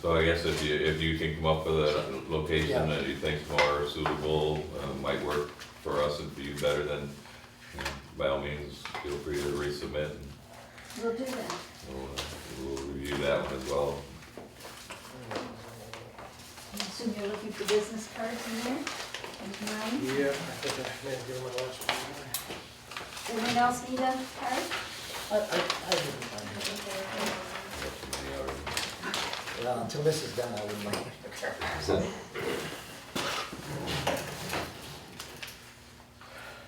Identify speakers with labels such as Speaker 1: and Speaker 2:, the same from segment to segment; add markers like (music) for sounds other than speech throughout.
Speaker 1: So I guess if you, if you can come up with a location that you think's more suitable, uh, might work for us and for you better, then you know, by all means, feel free to resubmit and
Speaker 2: We'll do that.
Speaker 1: we'll, uh, we'll review that one as well.
Speaker 2: I assume you're looking for business cards in there? And mine?
Speaker 3: Yeah, I think I may have given my last one.
Speaker 2: Anyone else need a card?
Speaker 4: I, I, I wouldn't mind it. Well, until this is done, I wouldn't mind it. So,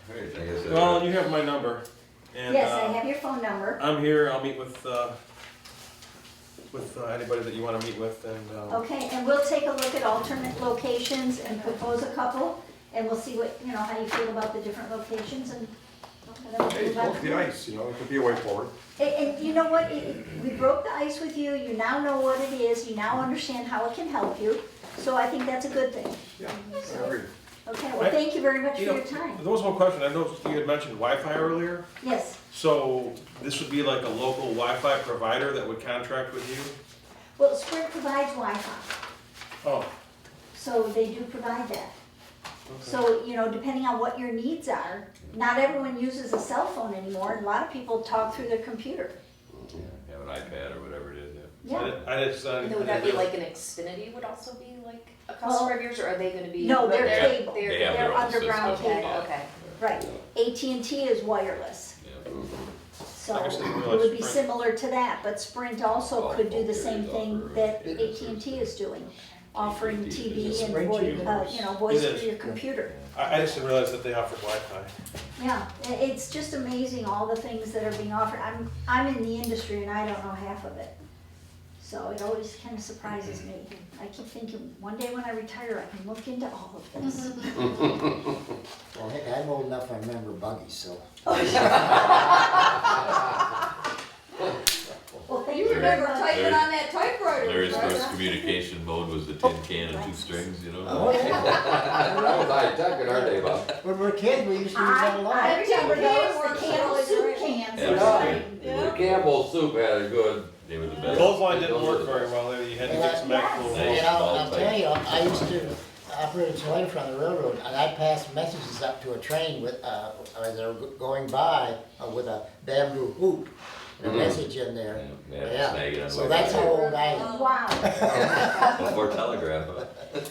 Speaker 1: Alright, I guess,
Speaker 3: Well,
Speaker 1: uh,
Speaker 3: you have my number, and
Speaker 2: Yes, I
Speaker 3: uh,
Speaker 2: have your phone number.
Speaker 3: I'm here, I'll meet with, uh, with uh, anybody that you wanna meet with, and, um,
Speaker 2: Okay, and we'll take a look at alternate locations and propose a couple, and we'll see what, you know, how you feel about the different locations and. and then we'll
Speaker 5: Hey,
Speaker 2: move on.
Speaker 5: broke the ice, you know, it could be a way forward.
Speaker 2: And, and you know what, It- it- we broke the ice with you, you now know what it is, you now understand how it can help you, so I think that's a good thing.
Speaker 5: Yeah, I agree.
Speaker 2: Okay, well, thank you very much for
Speaker 3: you know,
Speaker 2: your
Speaker 3: there
Speaker 2: time.
Speaker 3: was one question, I noticed you had mentioned Wi-Fi earlier,
Speaker 2: Yes,
Speaker 3: so this would be like a local Wi-Fi provider that would contract with you?
Speaker 2: well, Sprint provides Wi-Fi,
Speaker 3: Oh,
Speaker 2: so they do provide that.
Speaker 3: okay.
Speaker 2: So, you know, depending on what your needs are, not everyone uses a cell phone anymore, and a lot of people talk through their computer.
Speaker 1: have an iPad or whatever it is, yeah.
Speaker 3: I
Speaker 2: Yeah,
Speaker 3: didn't- I just, uh, I
Speaker 6: And
Speaker 3: didn't.
Speaker 6: then would that be like an Xfinity would also be like a customer of yours, or are they gonna be?
Speaker 2: No, they're
Speaker 1: Yeah,
Speaker 2: cable.
Speaker 6: they're-
Speaker 1: They have their
Speaker 2: they're
Speaker 1: own system.
Speaker 2: underground
Speaker 6: Okay,
Speaker 2: cable.
Speaker 6: okay.
Speaker 2: right. AT&T is wireless,
Speaker 1: Yeah.
Speaker 2: so
Speaker 3: I guess they
Speaker 2: it
Speaker 3: realize
Speaker 2: would be
Speaker 3: Sprint-
Speaker 2: similar to that, but Sprint also could do the same thing that
Speaker 1: Offer it.
Speaker 2: AT&T is doing, offering TV and
Speaker 4: Sprint
Speaker 2: voice,
Speaker 4: TV?
Speaker 2: uh, you know, voice
Speaker 3: It is.
Speaker 2: through your computer.
Speaker 3: I, I just didn't realize that they offered Wi-Fi.
Speaker 2: Yeah, i- it's just amazing, all the things that are being offered. I'm, I'm in the industry and I don't know half of it. So it always kind of surprises me. I keep thinking, one day when I retire, I can look into all of this.
Speaker 4: well, heck, I'm old enough, I remember buggies, so.
Speaker 2: Well, thank you
Speaker 6: You
Speaker 2: very
Speaker 6: remember
Speaker 2: much.
Speaker 6: typing on that typewriter?
Speaker 1: Larry's
Speaker 6: right?
Speaker 1: first communication mode was the tin can and two strings, you
Speaker 4: Oh,
Speaker 1: know?
Speaker 7: That was high tech in our day, Bob.
Speaker 4: When we were kids, we used to use that a
Speaker 2: I, I
Speaker 4: lot.
Speaker 2: remember those,
Speaker 6: Were
Speaker 2: the can of
Speaker 6: solid
Speaker 2: soup
Speaker 6: green.
Speaker 2: cans.
Speaker 1: Yeah.
Speaker 7: The Campbell soup had a good,
Speaker 1: They were the best.
Speaker 3: Gold line didn't work very well, there, you had to get some actual.
Speaker 1: Yeah.
Speaker 4: And I'll, I'll tell you, I used to operate a trailer from the railroad, and I'd pass messages up to a train with, uh, as they were going by, uh, with a bamboo hoop, and a message in there.
Speaker 1: Mm-hmm. Yeah, they had to snag it
Speaker 4: Yeah,
Speaker 1: on the
Speaker 4: so
Speaker 1: way
Speaker 4: that's
Speaker 1: back.
Speaker 4: how old I am.
Speaker 2: Wow,
Speaker 1: Or telegraph, huh?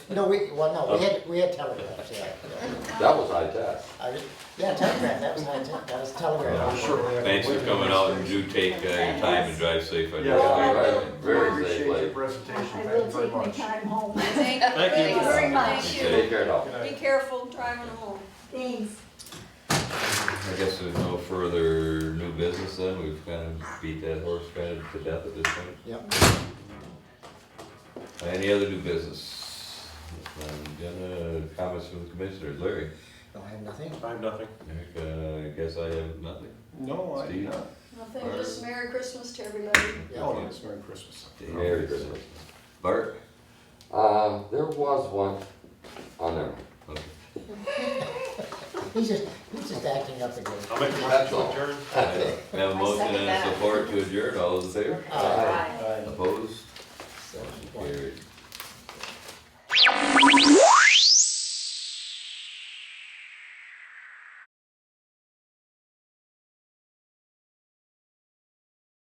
Speaker 4: No, we, well, no, we had, we had telegraphs, yeah. yeah.
Speaker 7: that was high tech.
Speaker 4: I did- Yeah, telegraph, that was, my te- that was telegraph.
Speaker 1: Thanks for coming out and do take uh, your time and drive safe. on your
Speaker 5: Yeah.
Speaker 7: Right, Very
Speaker 5: Appreciate
Speaker 7: safe,
Speaker 5: your
Speaker 7: like,
Speaker 5: presentation,
Speaker 2: I
Speaker 5: thank
Speaker 2: will
Speaker 5: you very
Speaker 2: take my
Speaker 5: much.
Speaker 2: time home.
Speaker 6: Thank
Speaker 3: Thank you.
Speaker 6: you
Speaker 2: very much.
Speaker 7: take
Speaker 6: Thank
Speaker 7: care now.
Speaker 6: you. Be careful driving home.
Speaker 2: Thanks.
Speaker 1: I guess there's no further new business then, we've kind of beat that horse kind of to death at this point. Uh,
Speaker 4: Yep.
Speaker 1: Any other new business? I'm gonna comments from the commissioners, Larry,
Speaker 4: Don't have nothing.
Speaker 3: I have nothing.
Speaker 1: Eric, uh, I guess I have nothing.
Speaker 5: No, I
Speaker 1: Steve?
Speaker 5: did not.
Speaker 6: Nothing, just Merry Christmas to everybody.
Speaker 5: Oh, nice, Merry Christmas.
Speaker 1: Merry Christmas. Bart?
Speaker 7: Uh, there was one on there.
Speaker 4: He's just, he's just acting up again.
Speaker 3: I'll make a
Speaker 7: That's
Speaker 3: motion to
Speaker 7: all.
Speaker 3: adjourn.
Speaker 1: We (laughs) have a motion
Speaker 6: Oh,
Speaker 1: and a support to adjourn, all those in favor?
Speaker 4: Uh,
Speaker 1: Opposed?
Speaker 4: so-
Speaker 1: Motion carried.